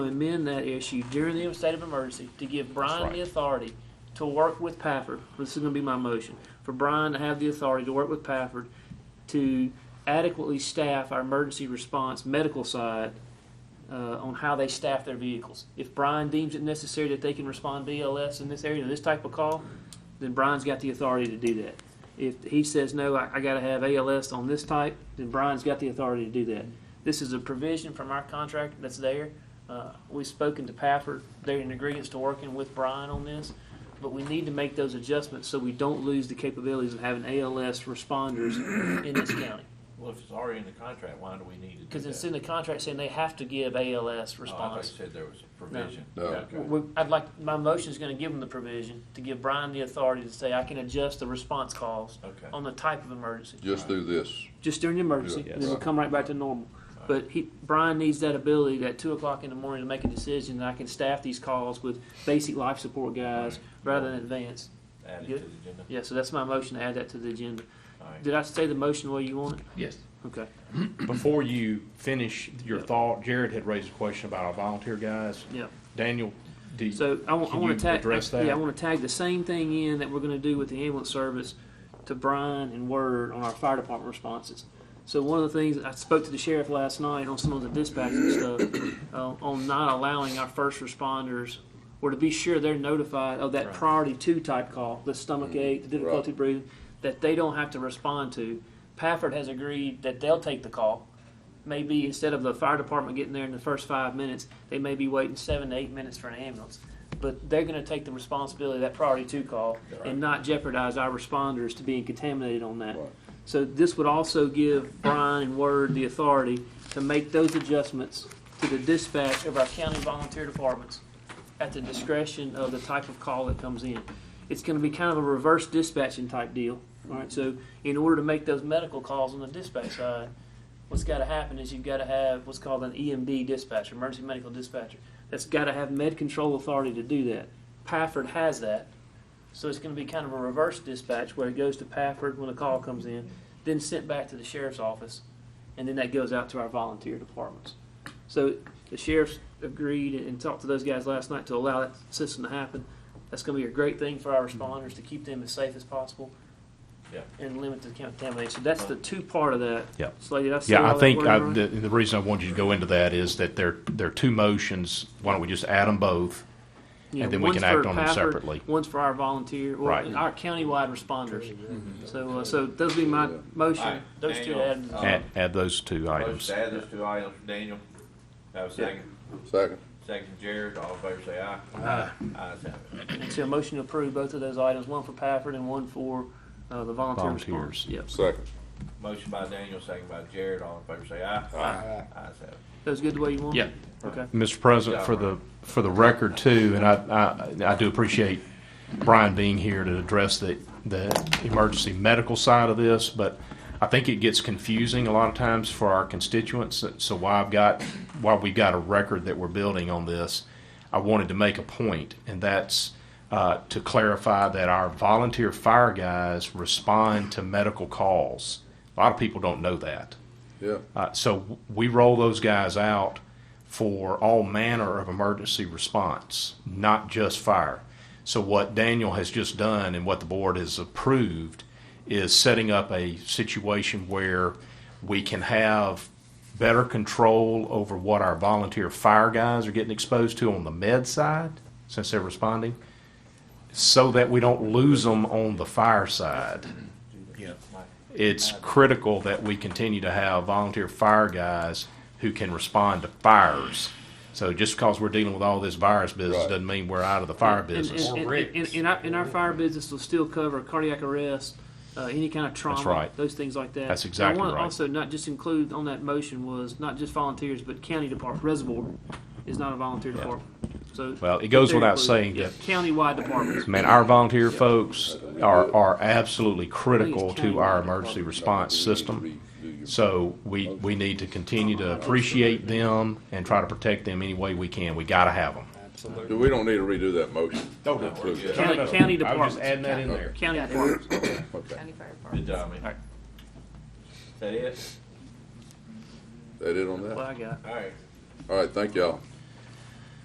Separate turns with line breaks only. amend that issue during the state of emergency to give Brian
right.
the authority to work with Pafford. This is gonna be my motion, for Brian to have the authority to work with Pafford to adequately staff our emergency response medical side uh, on how they staff their vehicles. If Brian deems it necessary that they can respond BLS in this area, in this type of call, then Brian's got the authority to do that. If he says, no, I, I gotta have ALS on this type, then Brian's got the authority to do that. This is a provision from our contract that's there. Uh, we've spoken to Pafford, they're in agreement to working with Brian on this, but we need to make those adjustments so we don't lose the capabilities of having ALS responders in this county.
Well, if it's already in the contract, why do we need to do that?
Because it's in the contract saying they have to give ALS
Oh, I thought
response.
you said there was a provision.
No.
Okay.
We- I'd like, my motion's gonna give them the provision to give Brian the authority to say, I can adjust the response calls
Okay.
on the type of emergency.
Just do this.
Just during the emergency,
Yeah.
and then we'll come right back to normal. But he, Brian needs that ability at two o'clock in the morning to make a decision, and I can staff these calls with basic life support guys rather than advanced.
Add it
Good.
to the agenda.
Yeah, so that's my motion, to add that to the agenda.
All right.
Did I say the motion the way you want it?
Yes.
Okay.
Before you finish your
Yep.
thought, Jared had raised a question about our volunteer guys.
Yeah.
Daniel, do you,
So I want, I
Can
want
you
to tag.
address that?
Yeah, I want to tag the same thing in that we're going to do with the ambulance service to Brian and Word on our fire department responses. So one of the things I spoke to the sheriff last night on some of the dispatching stuff uh, on not allowing our first responders or to be sure they're notified of that
Right.
priority two type call, the
Mm-hmm.
stomach ache, the difficulty
Right.
breathing, that they don't have to respond to. Pafford has agreed that they'll take the call maybe instead of the fire department getting there in the first five minutes, they may be waiting seven to eight minutes for an ambulance. But they're gonna take the responsibility of that priority two call and not jeopardize our responders to being contaminated on that.
Right.
So this would also give Brian and Word the authority to make those adjustments to the dispatch of our county volunteer departments at the discretion of the type of call that comes in. It's gonna be kind of a reverse dispatching type deal, alright, so in order to make those medical calls on the dispatch side, what's got to happen is you've got to have what's called an EMD dispatcher, emergency medical dispatcher. That's got to have med control authority to do that. Pafford has that. So it's going to be kind of a reverse dispatch where it goes to Pafford when a call comes in, then sent back to the sheriff's office, and then that goes out to our volunteer departments. So the sheriff's agreed and talked to those guys last night to allow that system to happen. That's going to be a great thing for our responders to keep them as safe as possible.
Yeah.
And limit the contamination. that's the two part of that.
Yeah.
Slade, did I say all
yeah, I
that
think
word
I,
right?
the, the reason I wanted you to go into that is that there, there are two motions. Why don't we just add them both?
Yeah,
and then we
one's
can act
for
on them
Pafford,
separately.
One's for our volunteer, or
Right.
our countywide responders. So, uh, so those would be my
All
motion.
right,
Those two
Daniel,
add.
uh,
Add, add those two
Motion
items.
to add those two items, Daniel. Have a second.
Second.
Second, Jared. All in favor, say aye. Aye. Ayes have it.
And so a motion to approve both of those items, one for Pafford and one for, uh, the volunteer response.
Volunteers.
Yep.
Second.
Motion by Daniel, second by Jared. All in favor, say aye. Aye. Ayes have it.
Those good the way you want?
Yeah.
Okay.
Mr. President, for the, for the record too, and I, I, I do appreciate Brian being here to address the, the emergency medical side of this, but I think it gets confusing a lot of times for our constituents, so why I've got, why we've got a record that we're building on this, I wanted to make a point, and that's, uh, to clarify that our volunteer fire guys respond to medical calls. A lot of people don't know that.
Yeah.
Uh, so we roll those guys out for all manner of emergency response, not just fire. So what Daniel has just done and what the board has approved is setting up a situation where we can have better control over what our volunteer fire guys are getting exposed to on the med side, since they're responding, so that we don't lose them on the fire side it's critical that we continue to have volunteer fire guys who can respond to fires. So just because we're dealing with all this virus business
Right.
doesn't mean we're out of the fire
And-
business.
and- and- And, and our, and our fire business will still cover cardiac arrest, uh, any kind of trauma.
right.
Those things like that.
That's
And
exactly
I want to
right.
also not just include on that motion was not just volunteers, but county department, reservoir is not a volunteer department. So.
Well, it goes
they're
without
included.
saying
Yeah,
that-
Countywide departments.
Man, our volunteer folks are, are absolutely critical to our
countywide.
emergency response system. So we, we need to continue to appreciate them and try to protect them any way we can. We gotta have them.
Do we don't need to redo that motion?
No, no,
Include
we're good.
that.
County, county departments.
that in
there.
County departments.
Okay.
County Fire
Good
Department.
job, man.
right.
That it?
That it on
Well,
that?
I got.
All right.
All right, thank y'all.